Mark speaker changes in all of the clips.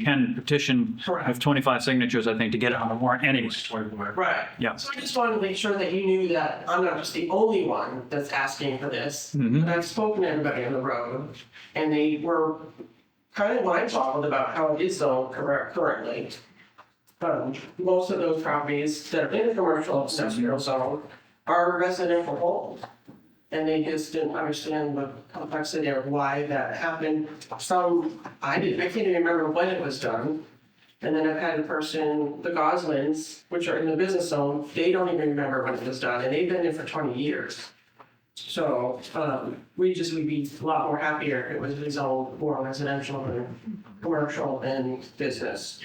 Speaker 1: can petition with
Speaker 2: Correct.
Speaker 1: 25 signatures, I think, to get it on the warrant anyway.
Speaker 2: Right.
Speaker 1: Yeah.
Speaker 2: So I just wanted to make sure that you knew that I'm not just the only one that's asking for this.
Speaker 1: Mhm.
Speaker 2: And I've spoken to everybody on the road, and they were kind of mind-boggled about how it is zoned curr- currently. Um, most of those properties that are in the commercial industrial zone are residential homes. And they just didn't understand the complexity of why that happened. Some, I didn't, I can't even remember when it was done. And then I've had a person, the Goslins, which are in the business zone, they don't even remember when it was done, and they've been in for twenty years. So, um, we just would be a lot more happier if it was rezoned more residential and commercial and business.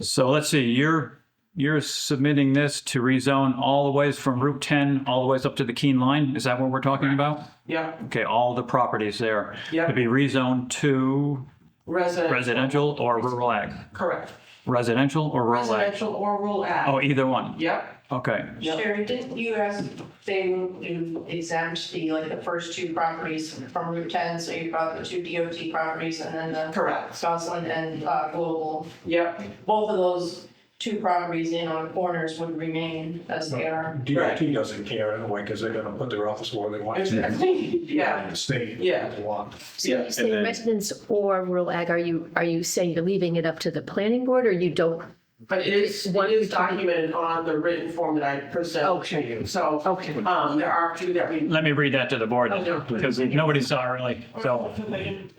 Speaker 1: So let's see, you're, you're submitting this to rezone all the ways from Route 10 all the ways up to the Keene Line? Is that what we're talking about?
Speaker 2: Yeah,
Speaker 1: Okay, all the properties there.
Speaker 2: Yeah.
Speaker 1: To be rezoned to
Speaker 2: resident,
Speaker 1: residential or rural ag?
Speaker 2: correct,
Speaker 1: Residential or rural ag?
Speaker 2: residential or rural ag,
Speaker 1: Oh, either one.
Speaker 2: yep,
Speaker 1: Okay.
Speaker 2: Yep.
Speaker 3: Sherry, didn't you ask they to exempt the, like, the first two properties from Route 10? So you brought the two DOT properties and then the
Speaker 2: correct,
Speaker 3: Scotland and uh, Global.
Speaker 2: yep,
Speaker 3: Both of those two properties in on corners would remain as they are.
Speaker 4: DOT doesn't care anyway, because they're gonna put their office where they want to.
Speaker 2: exactly, yeah,
Speaker 4: The state.
Speaker 2: Yeah.
Speaker 4: Want.
Speaker 5: So when
Speaker 2: Yeah,
Speaker 5: you say residents or rural ag, are you, are you saying you're leaving it up to the planning board or you don't?
Speaker 2: but it is, it is documented on the written form that I presented to you, so.
Speaker 5: Okay.
Speaker 2: Um, there are two that we.
Speaker 1: Let me read that to the board
Speaker 2: Oh,
Speaker 1: because nobody saw it really. So,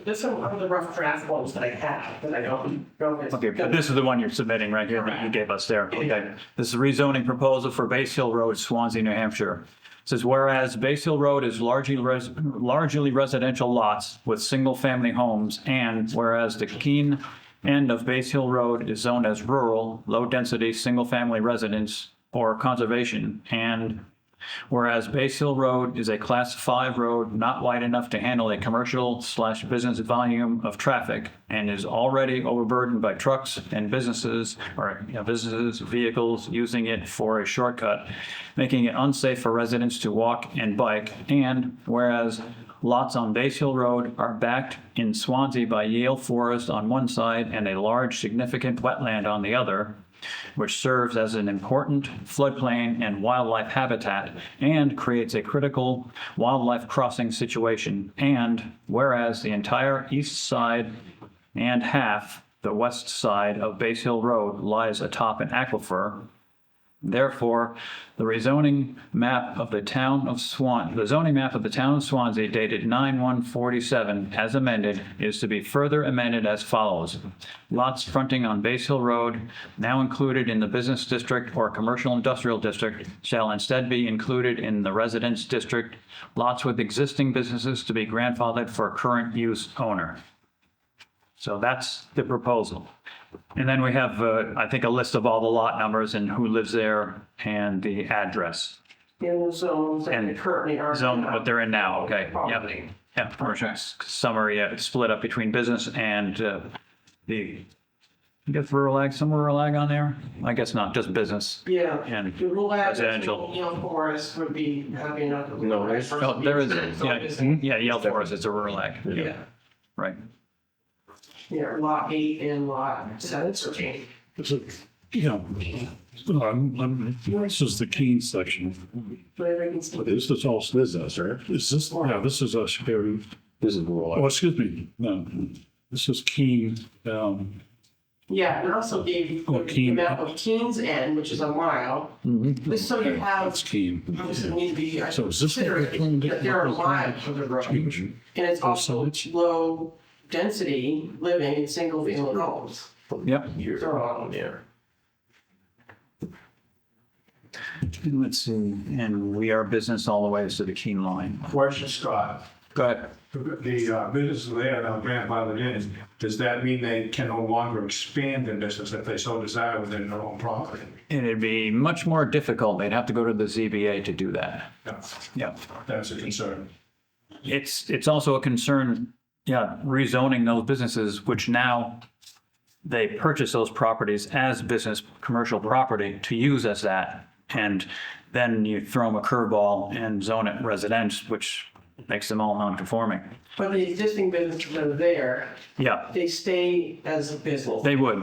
Speaker 2: This is one of the rough draft ones that I have, that I don't.
Speaker 1: okay, but this is the one you're submitting right here that you gave us there. Okay. This is rezoning proposal for Base Hill Road, Swansea, New Hampshire. Says whereas Base Hill Road is largely res- largely residential lots with single-family homes, and whereas the Keene end of Base Hill Road is zoned as rural, low-density, single-family residence or conservation, and whereas Base Hill Road is a Class 5 road not wide enough to handle a commercial slash business volume of traffic and is already overburdened by trucks and businesses, or you know, businesses, vehicles using it for a shortcut, making it unsafe for residents to walk and bike. And whereas lots on Base Hill Road are backed in Swansea by Yale Forest on one side and a large significant wetland on the other, which serves as an important floodplain and wildlife habitat and creates a critical wildlife crossing situation. And whereas the entire east side and half the west side of Base Hill Road lies atop an aquifer, Therefore, the rezoning map of the town of Swan, the zoning map of the town of Swansea dated 9/147 as amended is to be further amended as follows. Lots fronting on Base Hill Road, now included in the business district or commercial industrial district, shall instead be included in the residence district. Lots with existing businesses to be grandfathered for current use owner. So that's the proposal. And then we have, uh, I think, a list of all the lot numbers and who lives there and the address.
Speaker 2: In the zones that they
Speaker 1: And
Speaker 2: currently are.
Speaker 1: Zone, what they're in now, okay. Yep.
Speaker 2: Property.
Speaker 1: Yeah, commercial s- summary, uh, it's split up between business and uh, the, I guess rural ag, some rural ag on there? I guess not, just business.
Speaker 2: Yeah.
Speaker 1: And
Speaker 2: The rural ag,
Speaker 1: residential.
Speaker 2: you know, forest would be happy enough. to-
Speaker 4: No, there's-
Speaker 1: Oh, there is, Hmm?
Speaker 2: So it is-
Speaker 1: yeah, yeah, Yale Forest, it's a rural ag,
Speaker 2: Yeah,
Speaker 1: right.
Speaker 2: yeah, lot eight and lot seven, so eight.
Speaker 6: It's a, you know, I'm, I'm, this is the Keene section.
Speaker 2: Whatever it is.
Speaker 6: But this is all, this is, right? Is this, yeah, this is us here.
Speaker 4: This is
Speaker 6: Oh,
Speaker 4: rural.
Speaker 6: excuse me, no, this is Keene, um,
Speaker 2: Yeah, and also gave you
Speaker 6: Oh,
Speaker 2: the
Speaker 6: Keene.
Speaker 2: map of Keene's End, which is a mile. This so you have,
Speaker 6: that's Keene.
Speaker 2: this need to be, I
Speaker 6: So is this-
Speaker 2: consider it, that there are miles of the road. And it's
Speaker 6: Oh,
Speaker 2: also
Speaker 6: so it's-
Speaker 2: low density living in single family homes.
Speaker 1: Yep.
Speaker 2: So, yeah.
Speaker 1: Let's see, and we are business all the way to the Keene line.
Speaker 4: Question, Scott,
Speaker 1: Go ahead.
Speaker 4: the uh, business there now grandfathered in, does that mean they can no longer expand their business if they so desire within their own property?
Speaker 1: It'd be much more difficult, they'd have to go to the ZBA to do that.
Speaker 4: No,
Speaker 1: Yeah.
Speaker 4: That's a concern.
Speaker 1: It's, it's also a concern, yeah, rezoning those businesses, which now they purchase those properties as business, commercial property to use as that. And then you throw them a curveball and zone it residence, which makes them all non-conforming.
Speaker 2: But the existing businesses that are there,
Speaker 1: Yeah,
Speaker 2: they stay as a business.
Speaker 1: they would.